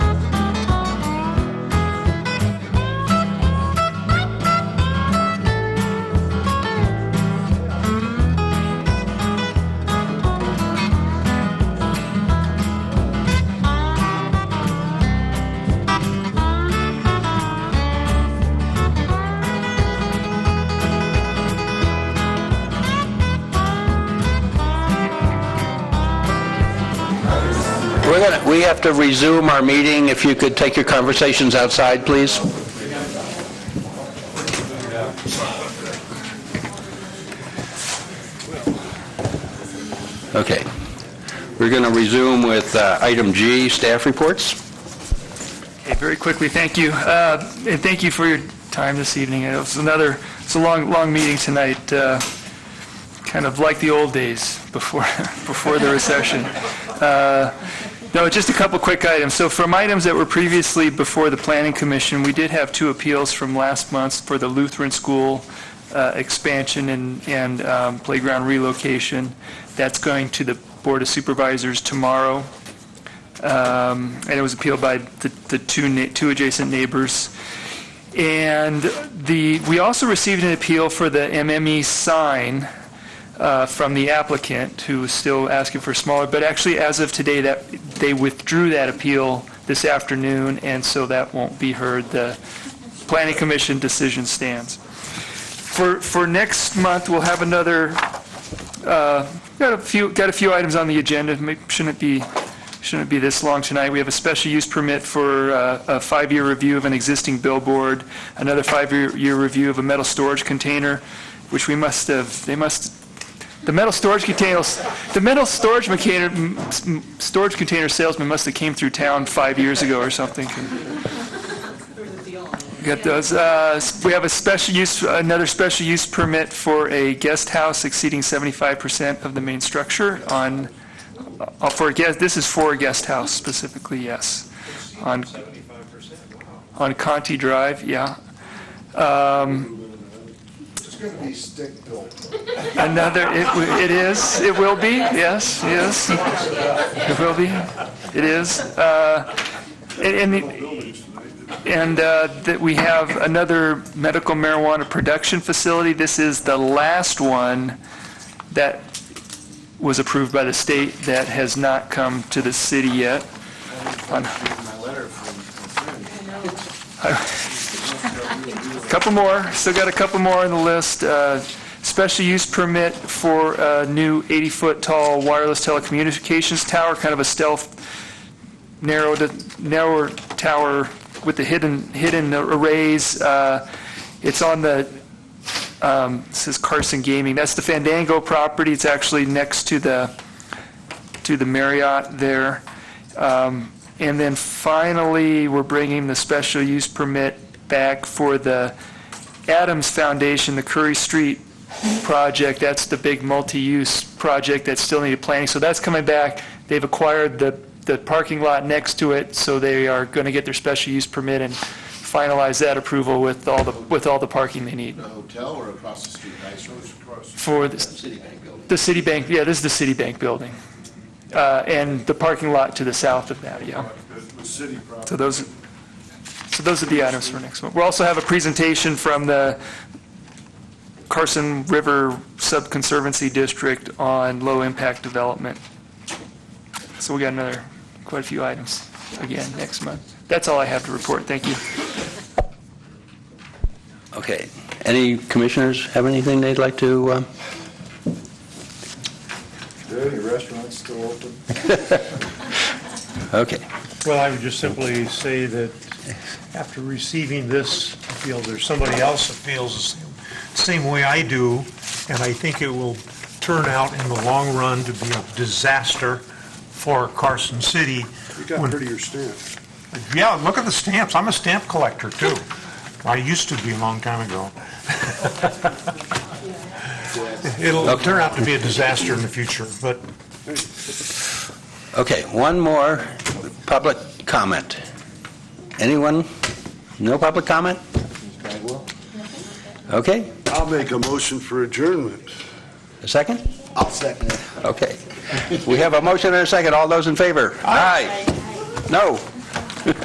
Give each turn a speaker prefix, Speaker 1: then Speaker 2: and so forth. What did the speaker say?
Speaker 1: We have to resume our meeting. If you could take your conversations outside, please. Okay. We're going to resume with uh, item G, staff reports.
Speaker 2: Okay, very quickly, thank you. Uh, And thank you for your time this evening. It was another, it's a long, long meeting tonight, uh, kind of like the old days before, before the recession. Uh, No, just a couple quick items. So from items that were previously before the Planning Commission, we did have two appeals from last month for the Lutheran School uh, expansion and and um, playground relocation. That's going to the Board of Supervisors tomorrow um, and it was appealed by the the two na- two adjacent neighbors. And the, we also received an appeal for the MME sign uh, from the applicant, who is still asking for smaller, but actually, as of today, that, they withdrew that appeal this afternoon, and so that won't be heard. The Planning Commission decision stands. For, for next month, we'll have another uh, Got a few, got a few items on the agenda, May- shouldn't be, shouldn't be this long tonight. We have a special use permit for uh, a five-year review of an existing billboard, another five-year year review of a metal storage container, which we must have, they must, the metal storage containers, the metal storage container, m- s- m- storage container salesman must have came through town five years ago or something. Got those. Uh, s- We have a special use, another special use permit for a guest house exceeding 75% of the main structure on, uh, for a guest, this is for a guest house specifically, yes. On 75%, wow. On Conti Drive, yeah.
Speaker 3: It's going to be stick-built.
Speaker 2: Another, it w- it is, it will be, yes, yes. It will be, it is. Uh, And, and the- and uh, that we have another medical marijuana production facility. This is the last one that was approved by the state that has not come to the city yet. Couple more, still got a couple more on the list. Uh, Special use permit for a new 80-foot tall wireless telecommunications tower, kind of a stealth, narrow, narrower tower with the hidden, hidden arrays. Uh, It's on the, um, this is Carson Gaming, that's the Fandango property, it's actually next to the, to the Marriott there. Um, And then finally, we're bringing the special use permit back for the Adams Foundation, the Curry Street project. That's the big multi-use project that still needed planning. So that's coming back. They've acquired the, the parking lot next to it, so they are going to get their special use permit and finalize that approval with all the, with all the parking they need
Speaker 3: A hotel or across the street, I suppose across
Speaker 2: for the
Speaker 3: the Citibank building.
Speaker 2: the Citibank, yeah, this is the Citibank building, Uh, and the parking lot to the south of that, yeah. So those, so those are the items for next month. We'll also have a presentation from the Carson River Subconservancy District on low-impact development. So we got another, quite a few items again next month. That's all I have to report, thank you.
Speaker 1: Okay. Any commissioners have anything they'd like to, uh,
Speaker 3: Are there any restaurants still open?
Speaker 1: okay.
Speaker 4: Well, I would just simply say that after receiving this appeal, there's somebody else that feels the same- same way I do, and I think it will turn out in the long run to be a disaster for Carson City.
Speaker 3: You got prettier staff.
Speaker 4: Yeah, look at the stamps. I'm a stamp collector, too. I used to be a long time ago. It'll turn out to be a disaster in the future, but
Speaker 1: Okay, one more public comment. Anyone? No public comment? Okay,
Speaker 5: I'll make a motion for adjournment.
Speaker 1: a second?
Speaker 3: I'll second it.
Speaker 1: Okay. We have a motion and a second. All those in favor? Aye. No?